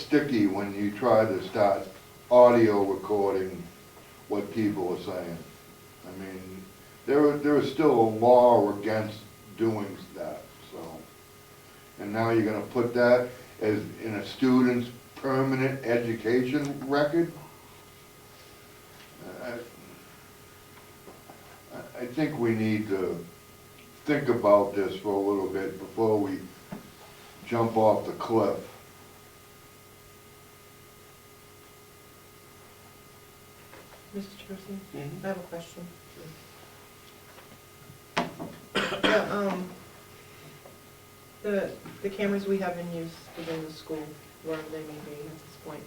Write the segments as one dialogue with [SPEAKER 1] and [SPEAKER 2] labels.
[SPEAKER 1] sticky when you try to start audio recording what people are saying. I mean, there, is- there is still a law against doing that, so. And now you're gonna put that as, in a student's permanent education record? I, I- I think we need to think about this for a little bit before we jump off the cliff.
[SPEAKER 2] Mr. Tracy, I have a question. The, um, the, the cameras we have in use within the school, wherever they may be at this point,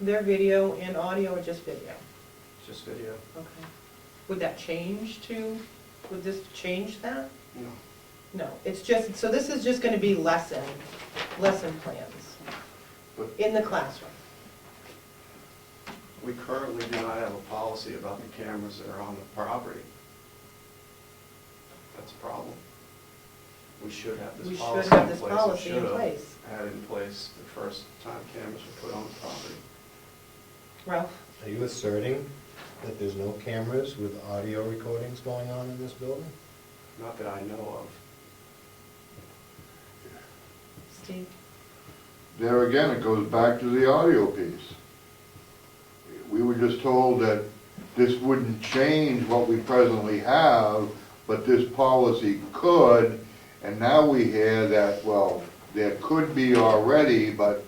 [SPEAKER 2] their video and audio or just video?
[SPEAKER 3] It's just uh, video.
[SPEAKER 2] Okay. Would that change to, would this change that?
[SPEAKER 3] No.
[SPEAKER 2] No, it's just, so this is just gonna be lesson, lesson plans
[SPEAKER 1] But-
[SPEAKER 2] in the classroom.
[SPEAKER 3] We currently do not have a policy about the cameras that are on the property. That's a problem. We should have
[SPEAKER 2] We should
[SPEAKER 3] this policy in place.
[SPEAKER 2] have this
[SPEAKER 3] and
[SPEAKER 2] policy in
[SPEAKER 3] should have
[SPEAKER 2] place.
[SPEAKER 3] Had it in place the first time cameras were put on the property.
[SPEAKER 2] Ralph?
[SPEAKER 4] Are you asserting that there's no cameras with audio recordings going on in this building?
[SPEAKER 3] Not that I know of.
[SPEAKER 2] Steve?
[SPEAKER 1] There again, it goes back to the audio piece. We were just told that this wouldn't change what we presently have, but this policy could, and now we hear that, well, there could be already, but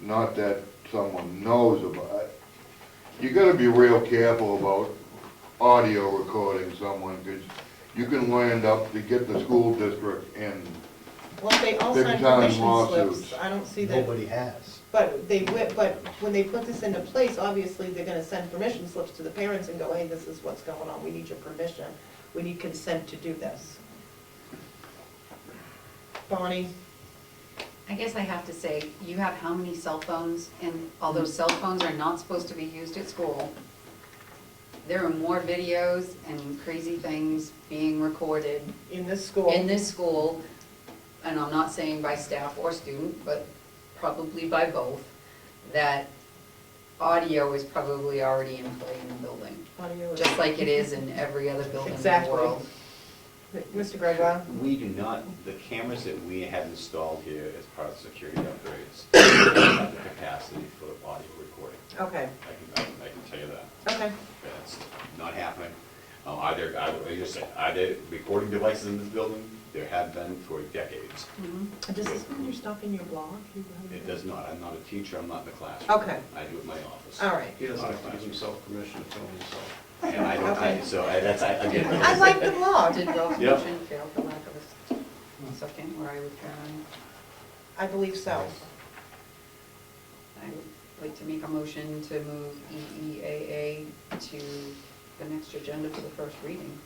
[SPEAKER 1] not that someone knows about it. You gotta be real careful about audio recording someone, because you can land up to get the school district in.
[SPEAKER 2] Well, they all
[SPEAKER 1] Big
[SPEAKER 2] signed
[SPEAKER 1] time
[SPEAKER 2] permission
[SPEAKER 1] lawsuits.
[SPEAKER 2] slips. I don't see that.
[SPEAKER 4] Nobody has.
[SPEAKER 2] But they, wi- but when they put this into place, obviously, they're gonna send permission slips to the parents and go, hey, this is what's going on, we need your permission, we need consent to do this. Bonnie,
[SPEAKER 5] I guess I have to say, you have how many cell phones, and although cell phones are not supposed to be used at school, there are more videos and crazy things being recorded
[SPEAKER 2] in this school.
[SPEAKER 5] in this school, and I'm not saying by staff or student, but probably by both, that audio is probably already in play in the building,
[SPEAKER 2] Audio is-
[SPEAKER 5] just like it is in every other building in the
[SPEAKER 2] Exactly.
[SPEAKER 5] world.
[SPEAKER 2] Mr. Gregoire,
[SPEAKER 6] We do not, the cameras that we have installed here as part of security upgrades, do not have the capacity for audio recording.
[SPEAKER 2] okay,
[SPEAKER 6] I can, I can- I can tell you that.
[SPEAKER 2] okay,
[SPEAKER 6] That's not happening. Uh, Are there, I I just said, are there recording devices in this building? There have been for decades.
[SPEAKER 5] Mhm.
[SPEAKER 2] does this mean you're stopping your blog? You haven't-
[SPEAKER 6] It does not, I'm not a teacher, I'm not in the classroom.
[SPEAKER 2] Okay,
[SPEAKER 6] I do it in my office.
[SPEAKER 2] all right.
[SPEAKER 3] He doesn't have to give himself permission to film himself.
[SPEAKER 6] And I don't, I-
[SPEAKER 2] Okay.
[SPEAKER 6] so I- that's, I, again.
[SPEAKER 2] I like the blog,
[SPEAKER 5] Did Ralph's
[SPEAKER 6] Yep.
[SPEAKER 5] motion fail for lack of a second, where I would turn?
[SPEAKER 2] I believe so.
[SPEAKER 5] I would like to make a motion to move E EEAA to the next agenda for the first reading.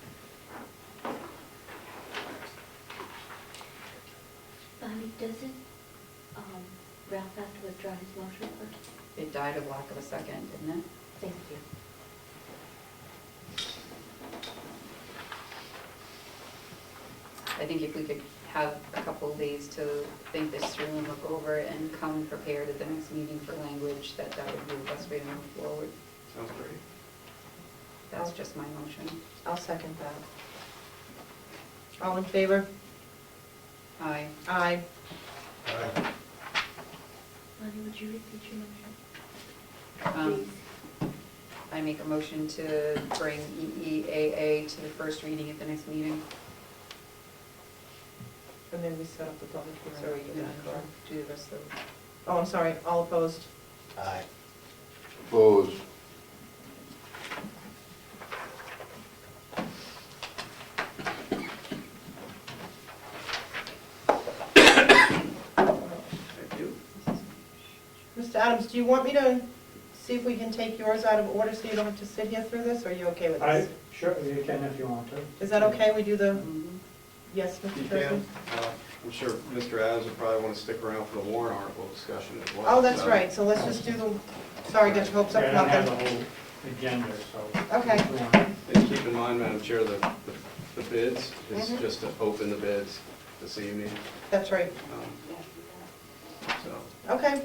[SPEAKER 7] Bonnie, doesn't um, Ralph have to withdraw his motion first?
[SPEAKER 5] It died of lack of a second, didn't it?
[SPEAKER 7] Thank you.
[SPEAKER 5] I think if we could have a couple of days to think this through and look over it and come prepared at the next meeting for language, that that would be the best way to move forward.
[SPEAKER 3] Sounds great.
[SPEAKER 5] That's just my motion.
[SPEAKER 2] I'll second that. All in favor?
[SPEAKER 5] Aye.
[SPEAKER 2] Aye.
[SPEAKER 7] Bonnie, would you repeat your motion?
[SPEAKER 5] Um,
[SPEAKER 7] Please.
[SPEAKER 5] I make a motion to bring E EEAA to the first reading at the next meeting.
[SPEAKER 2] And then we set up the public hearing.
[SPEAKER 5] So are you
[SPEAKER 2] after
[SPEAKER 5] gonna
[SPEAKER 2] that,
[SPEAKER 5] go
[SPEAKER 2] correct?
[SPEAKER 5] do the rest of the
[SPEAKER 2] Oh, I'm sorry, all opposed?
[SPEAKER 4] Aye.
[SPEAKER 1] Opposed?
[SPEAKER 3] Thank you.
[SPEAKER 2] Mr. Adams, do you want me to see if we can take yours out of order so you don't have to sit here through this, or are you okay with
[SPEAKER 8] I,
[SPEAKER 2] this?
[SPEAKER 8] sure, you can if you want to.
[SPEAKER 2] Is that okay, we do the,
[SPEAKER 5] Mhm.
[SPEAKER 2] yes,
[SPEAKER 3] You
[SPEAKER 2] Mr. Turpin?
[SPEAKER 3] can. Uh, I'm sure Mr. Adams would probably want to stick around for the warrant article discussion as well.
[SPEAKER 2] Oh, that's
[SPEAKER 3] so-
[SPEAKER 2] right, so let's just do the, sorry, get your hopes up,
[SPEAKER 8] Yeah, I don't have the
[SPEAKER 2] nothing.
[SPEAKER 8] whole agenda, so.
[SPEAKER 2] Okay.
[SPEAKER 8] if you want.
[SPEAKER 3] And keep in mind, Madam Chair, the, the- the bids, is
[SPEAKER 2] Mhm.
[SPEAKER 3] just to open the bids this evening,
[SPEAKER 2] That's right,
[SPEAKER 3] um, so.
[SPEAKER 2] okay.